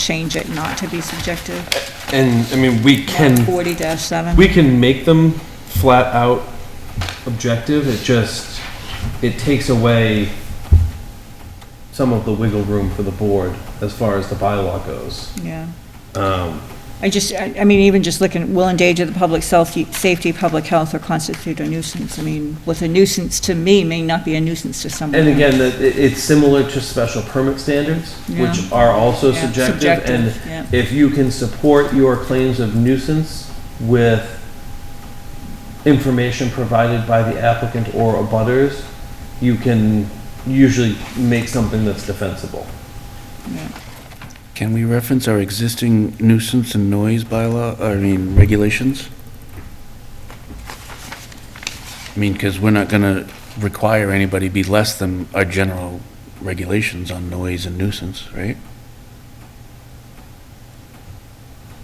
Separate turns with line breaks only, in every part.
change it not to be subjective,
And, I mean, we can,
forty dash seven.
we can make them flat out objective, it just, it takes away some of the wiggle room for the board as far as the bylaw goes.
Yeah.
Um,
I just, I I mean, even just looking, will endanger the public self- safety, public health, or constitute a nuisance. I mean, what's a nuisance to me may not be a nuisance to someone.
And
else.
again, that- it, it's similar to special permit standards, which are also
Yeah,
subjective, and
subjective, yeah.
if you can support your claims of nuisance with information provided by the applicant or abutters, you can usually make something that's defensible.
Can we reference our existing nuisance and noise bylaw, I mean, regulations? I mean, because we're not going to require anybody be less than our general regulations on noise and nuisance, right?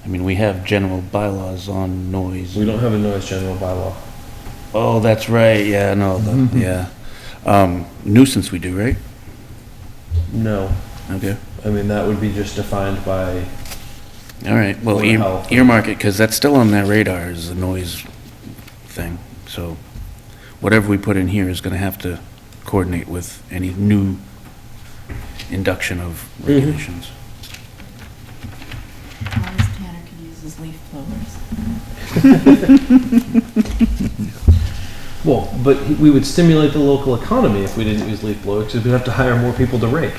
I mean, we have general bylaws on noise.
We don't have a noise general bylaw.
Oh, that's right, yeah, no, the- yeah. Um, Nuisance we do, right?
No,
Okay,
I mean, that would be just defined by,
all right, well,
Board of
ear-
Health.
earmark it, because that's still on their radar, is the noise thing. So whatever we put in here is going to have to coordinate with any new induction of regulations.
As long as Tanner can use his leaf blowers.
well, but we would stimulate the local economy if we didn't use leaf blowers, because we'd have to hire more people to rake.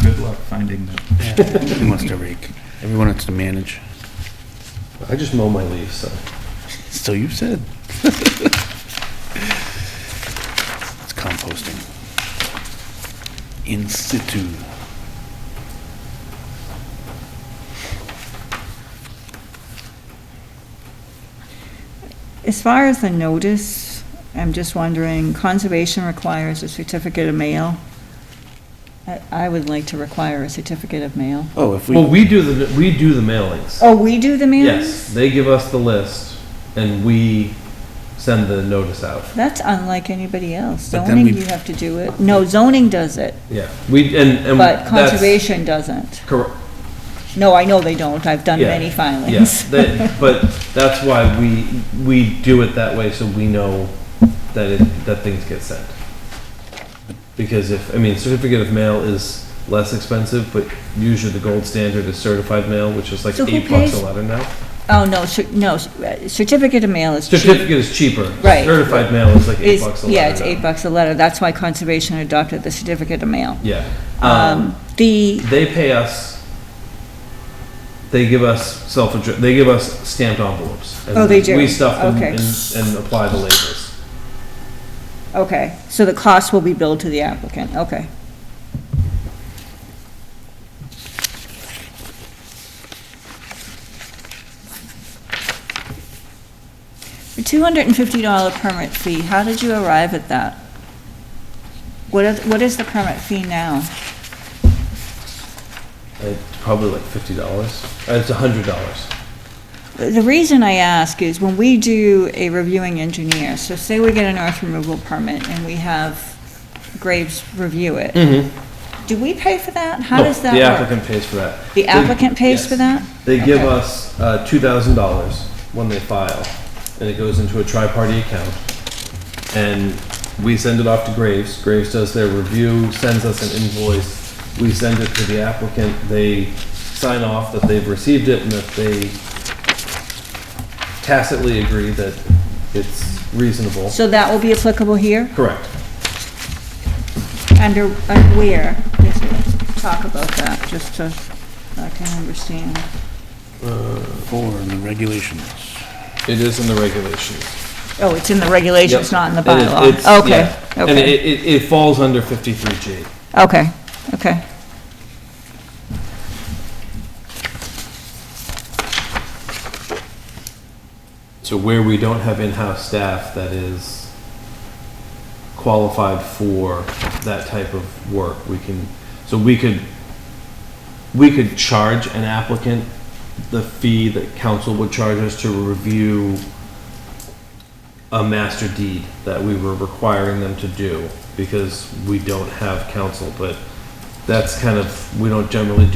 Good luck finding that.
Who wants to rake? Everyone has to manage.
I just mow my leaves, so.
So you said. It's composting. In situ.
As far as the notice, I'm just wondering, conservation requires a certificate of mail. I- I would like to require a certificate of mail.
Oh, if we.
Well, we do the, we do the mailings.
Oh, we do the mailings?
Yes, they give us the list and we send the notice out.
That's unlike anybody else.
But then
Zoning,
we-
you have to do it. No, zoning does it,
Yeah, we, and, and.
but
that's
conservation doesn't.
Correct,
No, I know they don't. I've done
Yeah,
many
yes,
filings.
that, but that's why we, we do it that way so we know that it, that things get sent. Because if, I mean, certificate of mail is less expensive, but usually the gold standard is certified mail, which is like
So who
eight bucks
pays-
a letter now.
Oh, no, cer- no, c- certificate of mail is cheap.
Certificate is cheaper.
Right.
Certified mail is like eight
It's-
bucks a letter
Yeah, it's
now.
eight bucks a letter. That's why conservation adopted the certificate of mail.
Yeah.
Um, the,
they pay us. They give us self. They give us stamped envelopes. And
Oh, they do?
We stuff them
Okay.
and, and apply the labels.
okay, so the cost will be billed to the applicant, okay. The two hundred and fifty dollar permit fee, how did you arrive at that? What is, what is the permit fee now?
It's Uh, probably like fifty dollars. Uh, It's a hundred dollars.
The reason I ask is when we do a reviewing engineer, so say we get an earth removal permit and we have Graves review it. Do we pay for that? How does
The
that work?
applicant pays for that.
The
They-
applicant pays for
yes.
that?
They give
Okay.
us uh, two thousand dollars when they file, and it goes into a tri-party account, and we send it off to Graves. Graves does their review, sends us an invoice. We send it to the applicant. They sign off that they've received it and that they tacitly agree that it's reasonable.
So that will be applicable here?
Correct.
Under, uh, where? Just Talk about that, just so I can understand.
Four in the regulations.
It is in the regulations.
Oh, it's in the regulations,
Yep.
not in the
It is- it's-
bylaw? Okay,
yeah. And
okay,
it, it, it falls under fifty-three G.
okay, okay.
So where we don't have in-house staff that is qualified for that type of work, we can, so we could, we could charge an applicant the fee that council would charge us to review a master deed that we were requiring them to do, because we don't have council, but that's kind of, we don't generally do